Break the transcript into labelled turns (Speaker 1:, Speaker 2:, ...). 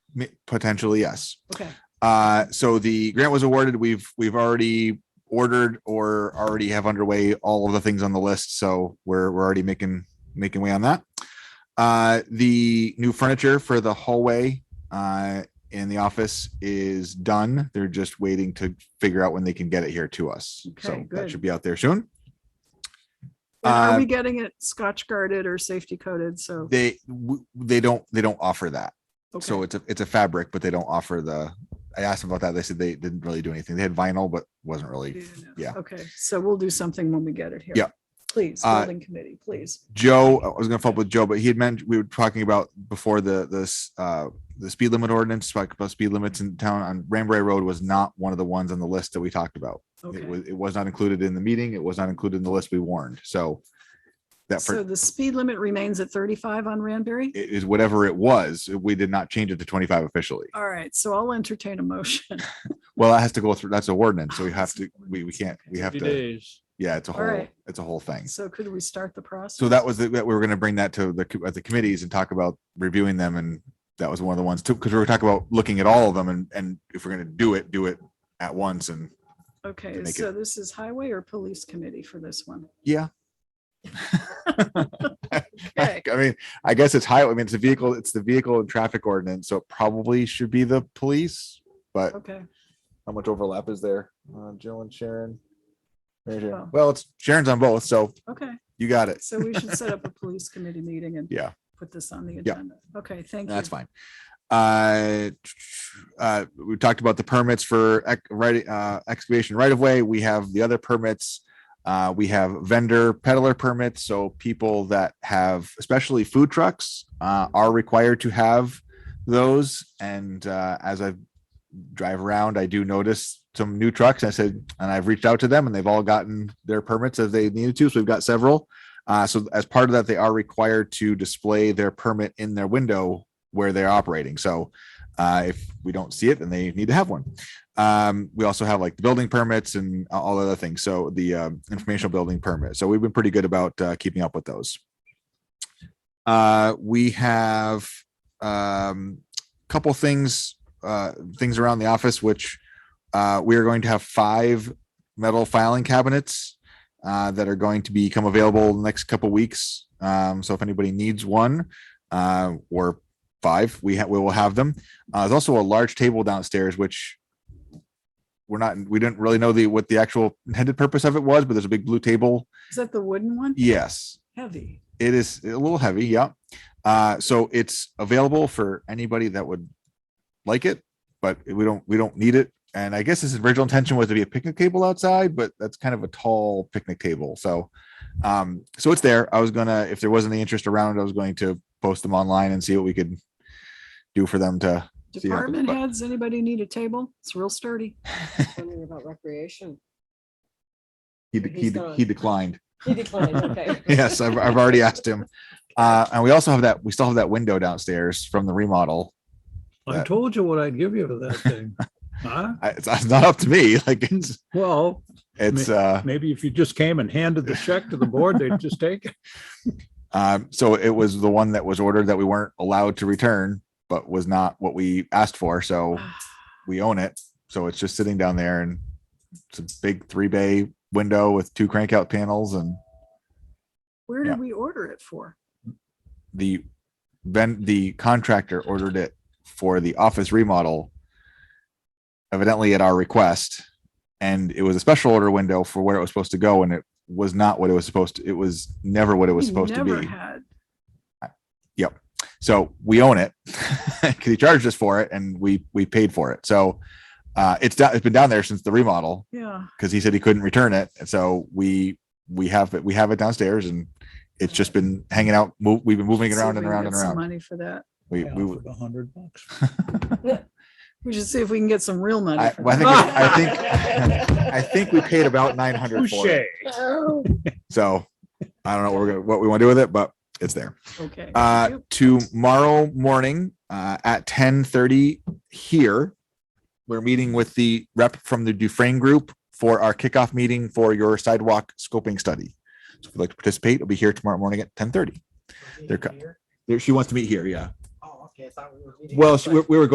Speaker 1: m- potentially, yes.
Speaker 2: Okay.
Speaker 1: Uh, so the grant was awarded. We've, we've already ordered or already have underway all of the things on the list. So we're, we're already making, making way on that. Uh, the new furniture for the hallway, uh, in the office is done. They're just waiting to figure out when they can get it here to us. So
Speaker 2: Okay,
Speaker 1: that
Speaker 2: good.
Speaker 1: should be out there soon.
Speaker 2: And
Speaker 1: Uh,
Speaker 2: are we getting it scotch guarded or safety coated? So.
Speaker 1: They, w- they don't, they don't offer that.
Speaker 2: okay.
Speaker 1: So it's a it's a fabric, but they don't offer the. I asked them about that. They said they didn't really do anything. They had vinyl, but wasn't
Speaker 2: Mm-hmm.
Speaker 1: really. yeah.
Speaker 2: Okay, so we'll do something when we get it here.
Speaker 1: Yeah.
Speaker 2: Please,
Speaker 1: Uh,
Speaker 2: building committee, please.
Speaker 1: Joe, I was gonna follow up with Joe, but he had mentioned we were talking about before the this uh the speed limit ordinance like about speed limits in town on Ranbury Road was not one of the ones on the list that we talked about.
Speaker 2: Okay.
Speaker 1: It was it was not included in the meeting. It was not included in the list we warned. So that for
Speaker 2: So the speed limit remains at thirty-five on Ranbury?
Speaker 1: it is whatever it was. We did not change it to twenty five officially.
Speaker 2: All right, so I'll entertain a motion.
Speaker 1: Well, that has to go through. That's a ordinance, so we
Speaker 2: Oh,
Speaker 1: have
Speaker 2: it's
Speaker 1: to.
Speaker 2: an
Speaker 1: We we
Speaker 2: ordinance,
Speaker 1: can't. We
Speaker 2: okay.
Speaker 1: have
Speaker 3: Few
Speaker 1: to.
Speaker 3: days.
Speaker 1: Yeah, it's a
Speaker 2: All
Speaker 1: whole.
Speaker 2: right.
Speaker 1: It's a whole thing.
Speaker 2: So could we start the process?
Speaker 1: So that was the, that we were going to bring that to the, co- at the committees and talk about reviewing them. And that was one of the ones too, because we were talking about looking at all of them and, and if we're going to do it, do it at once. And
Speaker 2: Okay,
Speaker 1: make it-
Speaker 2: so this is highway or police committee for this one?
Speaker 1: yeah, I
Speaker 2: Okay,
Speaker 1: mean, I guess it's highway. I mean, it's a vehicle, it's the vehicle and traffic ordinance. So it probably should be the police, but
Speaker 2: okay,
Speaker 1: how much overlap is there? Uh, Jill and Sharon. Mary Jane.
Speaker 2: Oh.
Speaker 1: Well, it's Sharon's on both. So
Speaker 2: okay.
Speaker 1: you got it.
Speaker 2: So we should set up a police committee meeting and
Speaker 1: Yeah.
Speaker 2: put this on the agenda. Okay, thank you.
Speaker 1: That's fine. Uh, uh, we talked about the permits for ec- right, uh, excavation right of way. We have the other permits. Uh, we have vendor peddler permits. So people that have, especially food trucks, uh, are required to have those. And, uh, as I drive around, I do notice some new trucks. I said, and I've reached out to them and they've all gotten their permits as they needed to. So we've got several. Uh, so as part of that, they are required to display their permit in their window where they're operating. So uh, if we don't see it, then they need to have one. Um, we also have like the building permits and all other things. So the um, informational building permit. So we've been pretty good about uh, keeping up with those. Uh, we have um, couple things uh, things around the office, which uh, we are going to have five metal filing cabinets uh, that are going to become available in the next couple weeks. Um, so if anybody needs one uh, or five, we ha- we will have them. Uh, there's also a large table downstairs, which we're not we didn't really know the what the actual intended purpose of it was, but there's a big blue table.
Speaker 2: Is that the wooden one?
Speaker 1: Yes,
Speaker 2: Heavy.
Speaker 1: it is a little heavy. Yeah. Uh, so it's available for anybody that would like it, but we don't we don't need it. And I guess his original intention was to be a picnic table outside, but that's kind of a tall picnic table. So, um, so it's there. I was gonna if there wasn't any interest around, it, I was going to post them online and see what we could do for them to. See how it goes,
Speaker 2: Department
Speaker 1: but-
Speaker 2: heads, anybody need a table? It's real sturdy.
Speaker 4: Wondering about recreation.
Speaker 1: He de- he,
Speaker 4: He's
Speaker 1: de-
Speaker 4: gone.
Speaker 1: he declined.
Speaker 4: He declined, okay.
Speaker 1: yes, I've, I've already asked him. Uh, and we also have that we still have that window downstairs from the remodel
Speaker 3: I
Speaker 1: That-
Speaker 3: told you what I'd give you for that thing. Huh?
Speaker 1: I, it's, it's not up to me. Like it's,
Speaker 3: Well,
Speaker 1: it's, uh,
Speaker 3: maybe if you just came and handed the check to the board, they'd just take it.
Speaker 1: um, so it was the one that was ordered that we weren't allowed to return, but was not what we asked for. So
Speaker 2: Ah.
Speaker 1: we own it. So it's just sitting down there and it's a big three bay window with two crank out panels and
Speaker 2: Where
Speaker 1: Yeah.
Speaker 2: did we order it for?
Speaker 1: the then the contractor ordered it for the office remodel evidently at our request and it was a special order window for where it was supposed to go and it was not what it was supposed to it was never what it was
Speaker 2: We
Speaker 1: supposed to be
Speaker 2: never had-
Speaker 1: So we own it because he charged us for it and we, we paid for it. So uh, it's, do- it's been down there since the remodel
Speaker 2: Yeah,
Speaker 1: because he said he couldn't return it. And so we, we have it, we have it downstairs and it's just been hanging out. Mo- We've been moving it
Speaker 2: see if
Speaker 1: around
Speaker 2: we
Speaker 1: and
Speaker 2: can
Speaker 1: around
Speaker 2: get
Speaker 1: and
Speaker 2: some
Speaker 1: around.
Speaker 2: Money for that.
Speaker 1: We, we, would-
Speaker 3: A hundred bucks.
Speaker 2: We should see if we can get some real money.
Speaker 1: I,
Speaker 2: for
Speaker 1: well, I
Speaker 2: that.
Speaker 1: think, we- I think, I think we paid about 900 for it.
Speaker 3: Touche.
Speaker 4: Oh.
Speaker 1: So I don't know what we're gonna, what we want to do with it, but it's there.
Speaker 2: Ah, Okay.
Speaker 1: Uh,
Speaker 2: Yep.
Speaker 1: tomorrow morning, uh, at ten thirty here. We're meeting with the rep from the Dufrain Group for our kickoff meeting for your sidewalk scoping study. So if you'd like to participate, it'll be here tomorrow morning at ten thirty. They're co-
Speaker 5: Meeting here?
Speaker 1: She wants to meet here, yeah.
Speaker 5: Oh, okay, I thought we were meeting.
Speaker 1: Well,
Speaker 5: outside.
Speaker 1: she- we we were